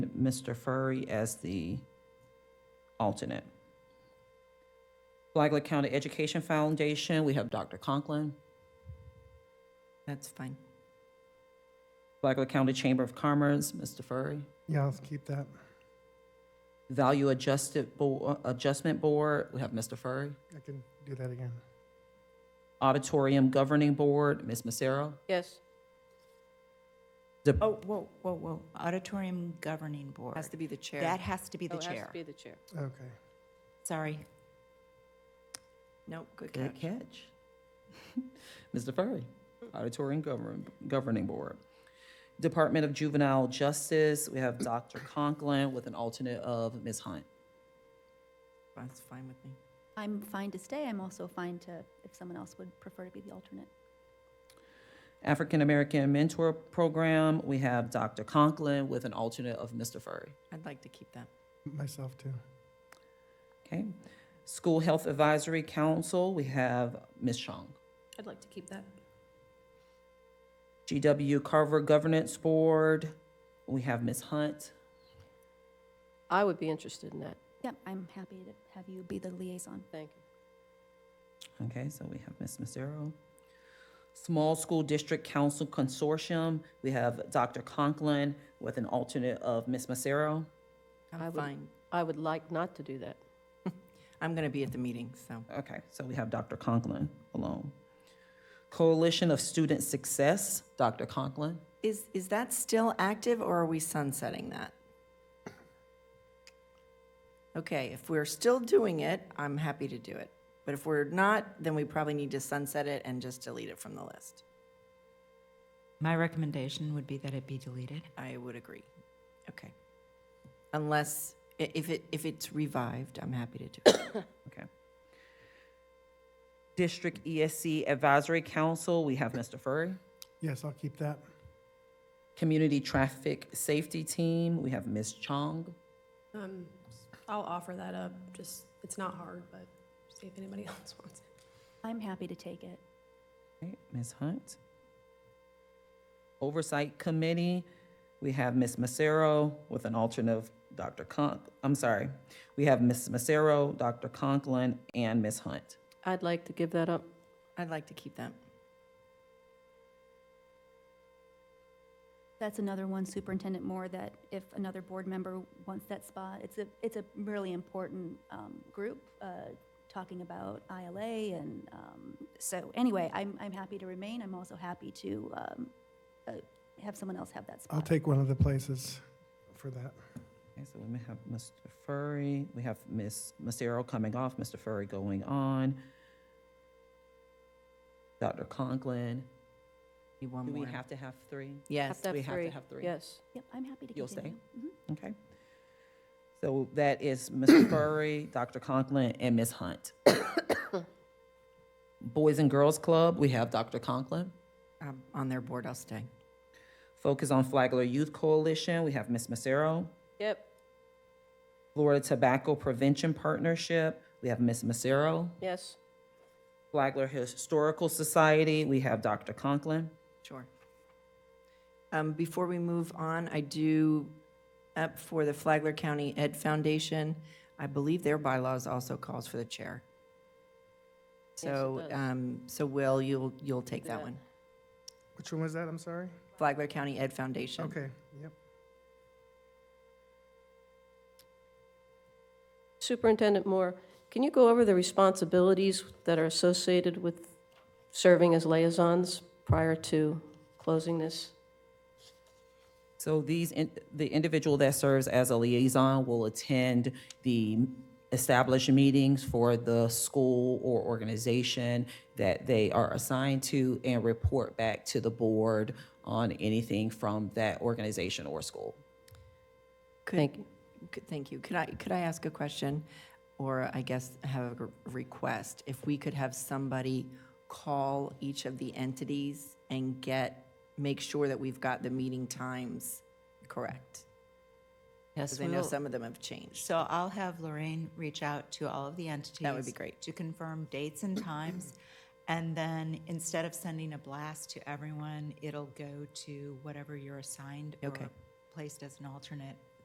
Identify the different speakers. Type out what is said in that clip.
Speaker 1: Mr. Furry as the alternate. Flagler County Education Foundation, we have Dr. Conklin.
Speaker 2: That's fine.
Speaker 1: Flagler County Chamber of Commerce, Mr. Furry.
Speaker 3: Yeah, let's keep that.
Speaker 1: Value Adjusted Bo- Adjustment Board, we have Mr. Furry.
Speaker 3: I can do that again.
Speaker 1: Auditorium Governing Board, Ms. Massaro.
Speaker 4: Yes.
Speaker 1: The-
Speaker 2: Oh, whoa, whoa, whoa. Auditorium Governing Board.
Speaker 5: Has to be the chair.
Speaker 2: That has to be the
Speaker 4: Oh, it has
Speaker 2: chair.
Speaker 4: to be the chair.
Speaker 3: Okay.
Speaker 2: Sorry. Nope, good
Speaker 1: Good
Speaker 2: catch.
Speaker 1: catch. Mr. Furry, Auditorium Govern- Governing Board. Department of Juvenile Justice, we have Dr. Conklin with an alternate of Ms. Hunt.
Speaker 2: That's fine with me.
Speaker 5: I'm fine to stay. I'm also fine to, if someone else would prefer to be the alternate.
Speaker 1: African American Mentor Program, we have Dr. Conklin with an alternate of Mr. Furry.
Speaker 2: I'd like to keep that.
Speaker 3: Myself too.
Speaker 1: Okay. School Health Advisory Council, we have Ms. Chong.
Speaker 6: I'd like to keep that.
Speaker 1: GW Carver Governance Board, we have Ms. Hunt.
Speaker 4: I would be interested in that.
Speaker 5: Yep, I'm happy to have you be the liaison.
Speaker 4: Thank
Speaker 1: Okay, so we have Ms. Mazzaro. Small School District Council Consortium, we have Dr. Conklin with an alternate of Ms. Massaro.
Speaker 4: I
Speaker 2: I'm
Speaker 4: would-
Speaker 2: fine.
Speaker 4: you. I would like not to do that.
Speaker 2: I'm going to be at the meeting, so
Speaker 1: Okay, so we have Dr. Conklin alone. Coalition of Student Success, Dr. Conklin.
Speaker 2: Is, is that still active or are we sunsetting that? Okay, if we're still doing it, I'm happy to do it. But if we're not, then we probably need to sunset it and just delete it from the list.
Speaker 7: My recommendation would be that it be deleted.
Speaker 2: I would agree. Okay. Unless, i- if it, if it's revived, I'm happy to do it.
Speaker 1: Okay. District ESC Advisory Council, we have Mr. Furry.
Speaker 3: Yes, I'll keep that.
Speaker 1: Community Traffic Safety Team, we have Ms. Chong.
Speaker 6: Um, I'll offer that up, just, it's not hard, but see if anybody else wants it.
Speaker 5: I'm happy to take it.
Speaker 1: Okay, Ms. Hunt. Oversight Committee, we have Ms. Massaro with an alternate of Dr. Conk, I'm sorry. We have Ms. Massaro, Dr. Conklin, and Ms. Hunt.
Speaker 4: I'd like to give that up.
Speaker 2: I'd like to keep that.
Speaker 5: That's another one, Superintendent Moore, that if another board member wants that spot, it's a, it's a really important um, group, uh, talking about ILA and, um, so anyway, I'm, I'm happy to remain. I'm also happy to um, uh, have someone else have that spot.
Speaker 3: I'll take one of the places for that.
Speaker 1: Okay, so we may have Mr. Furry, we have Ms. Massaro coming off, Mr. Furry going on. Dr. Conklin,
Speaker 2: Need one
Speaker 1: do we
Speaker 2: more.
Speaker 1: have to have three?
Speaker 2: Yes,
Speaker 1: we have to have three.
Speaker 4: Yes.
Speaker 5: Yep, I'm happy to continue.
Speaker 1: You'll stay? Okay. So that is Mr. Furry, Dr. Conklin, and Ms. Hunt. Boys and Girls Club, we have Dr. Conklin.
Speaker 2: um, on their board, I'll stay.
Speaker 1: Focus on Flagler Youth Coalition, we have Ms. Massaro.
Speaker 4: Yep,
Speaker 1: Florida Tobacco Prevention Partnership, we have Ms. Massaro.
Speaker 4: yes.
Speaker 1: Flagler Historical Society, we have Dr. Conklin.
Speaker 2: Sure. Um, Before we move on, I do, up for the Flagler County Ed Foundation, I believe their bylaws also calls for the chair.
Speaker 4: Yes, it
Speaker 2: So,
Speaker 4: does.
Speaker 2: um, so Will, you'll, you'll take that
Speaker 4: Yeah.
Speaker 2: one.
Speaker 3: Which one was that? I'm sorry.
Speaker 2: Flagler County Ed Foundation.
Speaker 3: Okay, yep.
Speaker 4: Superintendent Moore, can you go over the responsibilities that are associated with serving as liaisons prior to closing this?
Speaker 1: So these, in- the individual that serves as a liaison will attend the established meetings for the school or organization that they are assigned to and report back to the board on anything from that organization or school.
Speaker 2: Could-
Speaker 4: Thank you.
Speaker 2: could- Thank you. Could I, could I ask a question? Or I guess have a request? If we could have somebody call each of the entities and get, make sure that we've got the meeting times correct?
Speaker 7: Yes,
Speaker 2: Because I
Speaker 7: we
Speaker 2: know
Speaker 7: will.
Speaker 2: some of them have changed.
Speaker 7: So I'll have Lorraine reach out to all of the entities.
Speaker 2: be great.
Speaker 7: To confirm dates and times. And then instead of sending a blast to everyone, it'll go to whatever you're assigned or
Speaker 2: Okay.
Speaker 7: placed as an alternate